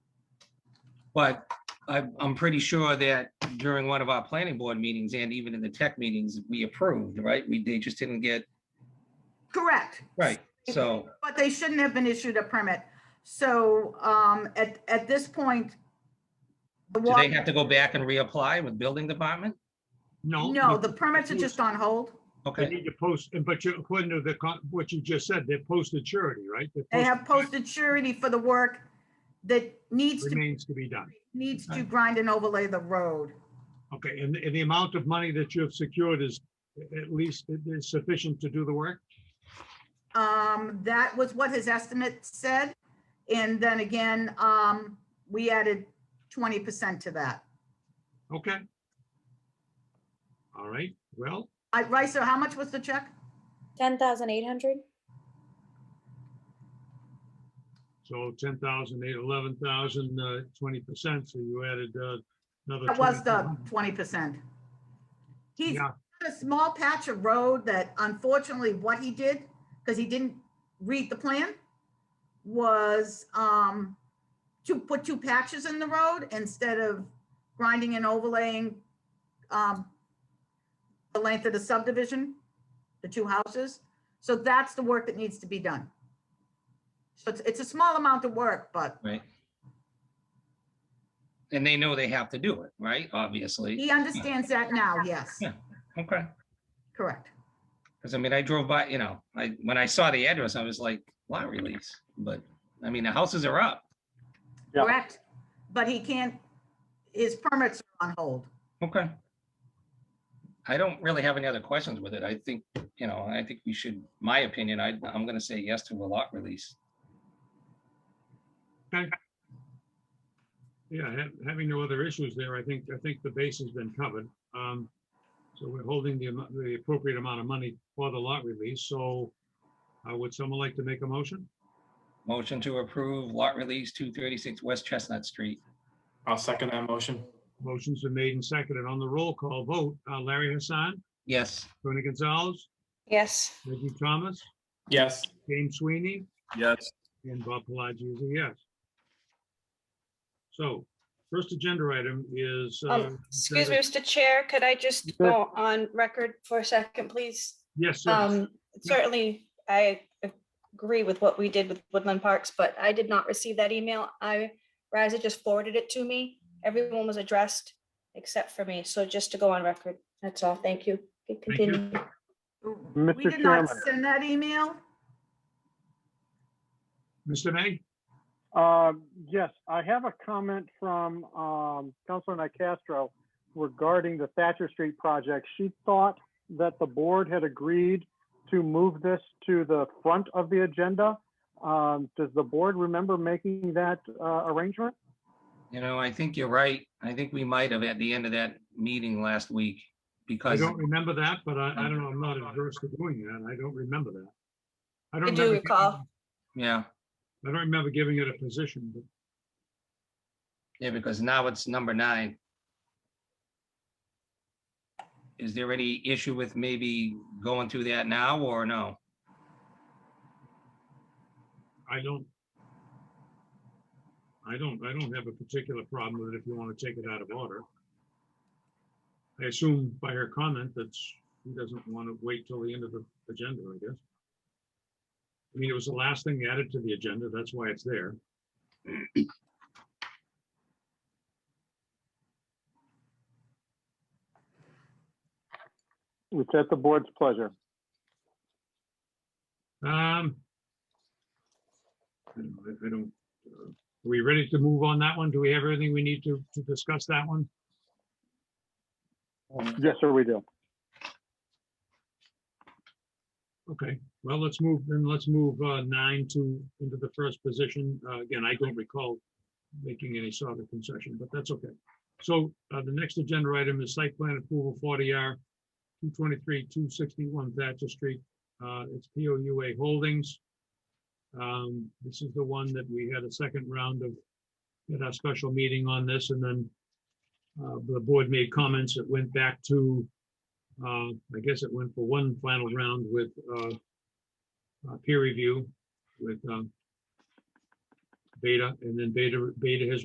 But I, I'm pretty sure that during one of our planning board meetings and even in the tech meetings, we approved, right? We, they just didn't get, Correct. right, so, But they shouldn't have been issued a permit. So um, at, at this point, the do water- they have to go back and reapply with building department? No. No, you- the permits are just on hold. They Okay, need to post, and but you, according to the, con- what you just said, they're posted surety, right? They're They posted- have posted surety for the work that needs to, Remains to be done. needs to grind and overlay the road. Okay, and, and the amount of money that you have secured is at least it is sufficient to do the work? Um, that was what his estimate said. And then again, um, we added twenty percent to that. Okay. All right, well, I, Ricer, how much was the check? Ten thousand eight hundred? so 10,000, eight- 11,000, uh, 20%, so you added uh, another. That was the 22. twenty percent. He's Yeah, got a small patch of road that unfortunately what he did, because he didn't read the plan, was, um, to put two patches in the road instead of grinding and overlaying, um, the length of the subdivision, the two houses. So that's the work that needs to be done. So it's, it's a small amount of work, but right. And they know they have to do it, right? Obviously, he understands that now, yes, Yeah. okay. correct. Because I mean, I drove by, you know, I, when I saw the address, I was like, lot release, but, I mean, the houses are up. Yeah. Correct, but he can't, his permits are on hold. Okay. I don't really have any other questions with it. I think, you know, I think we should, my opinion, I, I'm gonna say yes to a lot release. yeah, ha- having no other issues there, I think, I think the base has been covered. Um, So we're holding the, amo- the appropriate amount of money for the lot release, so uh, would someone like to make a motion? Motion to approve lot release two thirty-six West Chestnut Street. I'll second that motion. Motions are made and seconded on the roll call vote. uh, Larry Hassan, Yes, Tony Gonzalez, Yes. Reggie Thomas, Yes. James Sweeney, Yes. and Bob Pelagi is a yes. So first agenda item is, uh, Um, Excuse me, Mr. Chair, could I just go on record for a second, please? yes, sir. Um, certainly, I agree with what we did with Woodland Parks, but I did not receive that email. I, Riza just forwarded it to me. Everyone was addressed except for me, so just to go on record, that's all. Thank you. You can Thank you. Continue. We Mr. did not Chairman. send that email. Mr. May, Um, Yes, I have a comment from um, Councilor Nicastro regarding the Thatcher Street project. She thought that the board had agreed to move this to the front of the agenda. Um, Does the board remember making that uh, arrangement? you know, I think you're right. I think we might have at the end of that meeting last week I because, don't remember that, but I, I don't know, I'm not adverse to doing that. I don't remember that. I don't I do remember recall. yeah, giving- I don't remember giving it a position, but yeah, because now it's number nine. Is there any issue with maybe going through that now or no? I don't. I don't, I don't have a particular problem with it if you want to take it out of order. I assume by her comment that she doesn't want to wait till the end of the agenda, I guess. I mean, it was the last thing added to the agenda, that's why it's there. It's at the board's pleasure. Um. I don't, know, I don't, uh, are we ready to move on that one? Do we have everything we need to, to discuss that one? Yes, sir, we do. Okay, well, let's move, then let's move uh, nine to, into the first position. Uh, Again, I don't recall making any sort of concession, but that's okay. So uh, the next agenda item is site plan approval forty R, two twenty-three, two sixty-one Thatcher Street. Uh, It's P O U A Holdings. Um, This is the one that we had a second round of, at our special meeting on this, and then uh, the board made comments. It went back to uh, I guess it went for one final round with, uh, uh, peer review with, um, Beta, and uh, then Beta, Beta has